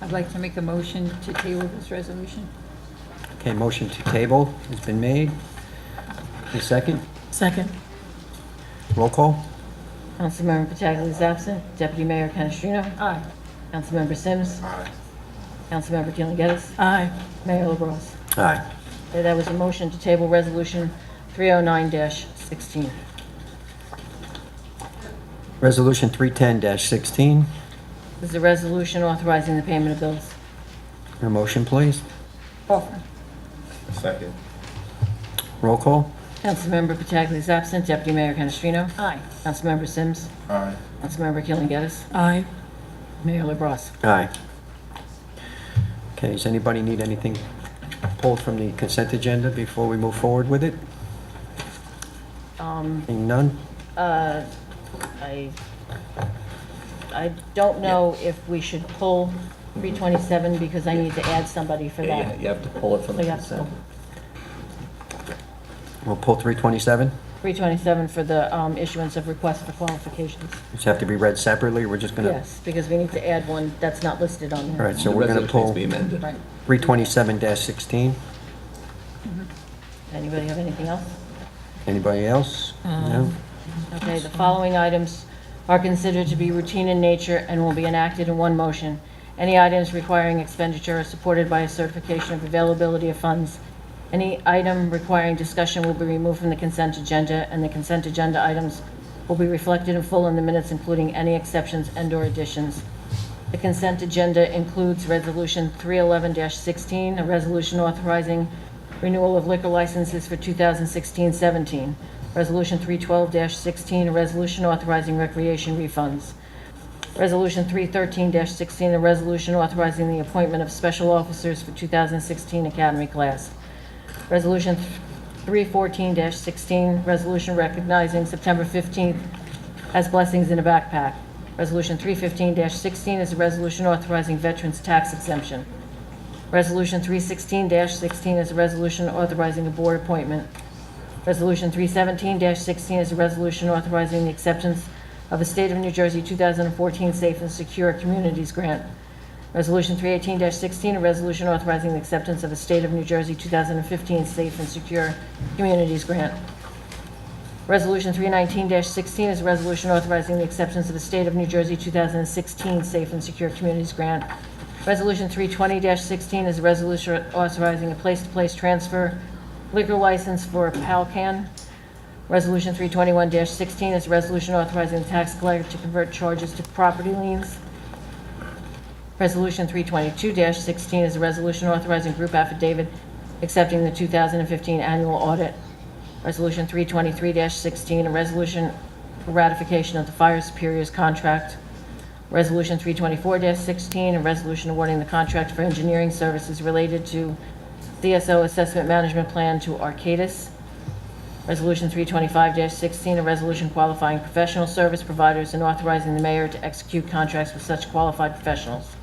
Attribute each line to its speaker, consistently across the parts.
Speaker 1: I'd like to make a motion to table this resolution.
Speaker 2: Okay, motion to table has been made. A second,
Speaker 3: Second.
Speaker 2: roll call?
Speaker 4: Councilmember Pataglia is absent. Deputy Mayor Canestrino.
Speaker 1: Aye.
Speaker 4: Councilmember Sims. Councilmember Keeling Geddis.
Speaker 3: Aye.
Speaker 4: Mayor LaBrus.
Speaker 2: Aye.
Speaker 4: Okay, That was a motion to table Resolution 309-16.
Speaker 2: Resolution 310-16,
Speaker 4: This is a resolution authorizing the payment of bills.
Speaker 2: your motion, please.
Speaker 1: Offer.
Speaker 5: Second.
Speaker 2: Roll call?
Speaker 4: Councilmember Pataglia is absent. Deputy Mayor Canestrino.
Speaker 1: Aye.
Speaker 4: Councilmember Sims.
Speaker 5: Aye.
Speaker 4: Councilmember Keeling Geddis.
Speaker 3: Aye.
Speaker 4: Mayor LaBrus.
Speaker 2: Aye. Okay, does anybody need anything pulled from the consent agenda before we move forward with it?
Speaker 4: Um,
Speaker 2: Seeing none?
Speaker 4: uh, I, I don't know if we should pull 327 because I need to add somebody for
Speaker 6: Yeah,
Speaker 4: that.
Speaker 6: you have to pull it from
Speaker 4: So
Speaker 6: the
Speaker 4: you have to
Speaker 6: consent.
Speaker 4: pull.
Speaker 2: We'll pull 327.
Speaker 4: 327 for the um, issuance of requests for qualifications.
Speaker 2: Does it have to be read separately? We're just gonna...
Speaker 4: Yes, because we need to add one that's not listed on
Speaker 2: All
Speaker 4: there.
Speaker 2: right, so we're gonna pull
Speaker 6: The resolution needs to be amended.
Speaker 4: Right.
Speaker 2: 327-16.
Speaker 4: Anybody have anything else?
Speaker 2: Anybody else?
Speaker 4: Um,
Speaker 2: No?
Speaker 4: Okay, the following items are considered to be routine in nature and will be enacted in one motion. Any items requiring expenditure are supported by a certification of availability of funds. Any item requiring discussion will be removed from the consent agenda, and the consent agenda items will be reflected in full in the minutes, including any exceptions and/or additions. The consent agenda includes Resolution 311-16, a resolution authorizing renewal of liquor licenses for 2016-17. Resolution 312-16, a resolution authorizing recreation refunds. Resolution 313-16, a resolution authorizing the appointment of special officers for 2016 academy class. Resolution 314-16, resolution recognizing September 15th as blessings in a backpack. Resolution 315-16 is a resolution authorizing veterans' tax exemption. Resolution 316-16 is a resolution authorizing a board appointment. Resolution 317-16 is a resolution authorizing the acceptance of a State of New Jersey 2014 Safe and Secure Communities Grant. Resolution 318-16, a resolution authorizing the acceptance of a State of New Jersey 2015 Safe and Secure Communities Grant. Resolution 319-16 is a resolution authorizing the acceptance of the State of New Jersey 2016 Safe and Secure Communities Grant. Resolution 320-16 is a resolution authorizing a place-to-place transfer liquor license for Palcan. Resolution 321-16 is a resolution authorizing the tax collector to convert charges to property liens. Resolution 322-16 is a resolution authorizing group affidavit accepting the 2015 annual audit. Resolution 323-16, a resolution for ratification of the fire superior's contract. Resolution 324-16, a resolution awarding the contract for engineering services related to CSO Assessment Management Plan to Arcadis. Resolution 325-16, a resolution qualifying professional service providers and authorizing the mayor to execute contracts with such qualified professionals.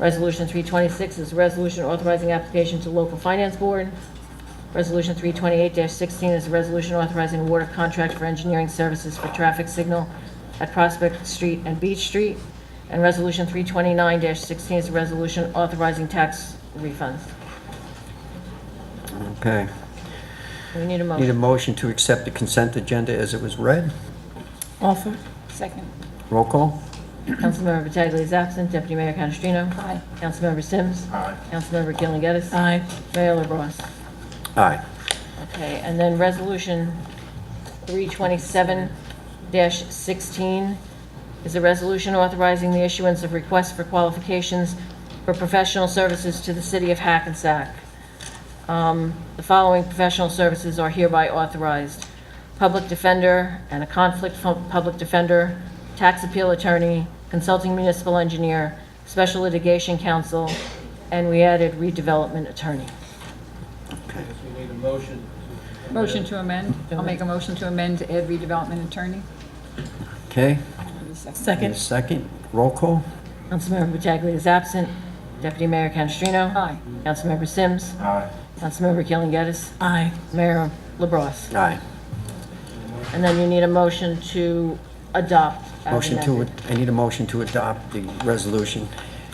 Speaker 4: Resolution 326 is a resolution authorizing application to local finance board. Resolution 328-16 is a resolution authorizing award of contract for engineering services for traffic signal at Prospect Street and Beach Street. And Resolution 329-16 is a resolution authorizing tax refunds.
Speaker 2: Okay.
Speaker 4: We need a
Speaker 2: Need a motion
Speaker 4: motion.
Speaker 2: to accept the consent agenda as it was read?
Speaker 3: Offer.
Speaker 1: Second.
Speaker 2: Roll call?
Speaker 4: Councilmember Pataglia is absent. Deputy Mayor Canestrino?
Speaker 1: Aye.
Speaker 4: Councilmember Sims?
Speaker 5: Aye.
Speaker 4: Councilmember Keeling Geddis?
Speaker 3: Aye.
Speaker 4: Mayor LaBrus?
Speaker 2: Aye.
Speaker 4: Okay, and then Resolution 327-16 is a resolution authorizing the issuance of requests for qualifications for professional services to the city of Hackensack. Um, The following professional services are hereby authorized: public defender and a conflict fu- public defender, tax appeal attorney, consulting municipal engineer, special litigation counsel, and we added redevelopment attorney.
Speaker 7: We need a motion.
Speaker 1: Motion to amend. I'll make a motion to amend to add redevelopment attorney.
Speaker 2: Okay, and a
Speaker 3: Second.
Speaker 2: second, roll call?
Speaker 4: Councilmember Pataglia is absent. Deputy Mayor Canestrino.
Speaker 1: Aye.
Speaker 4: Councilmember Sims.
Speaker 5: Aye.
Speaker 4: Councilmember Keeling Geddis.
Speaker 3: Aye.
Speaker 4: Mayor LaBrus.
Speaker 2: Aye.
Speaker 4: And then you need a motion to adopt. as
Speaker 2: Motion to,
Speaker 4: amended.
Speaker 2: I need a motion to adopt the resolution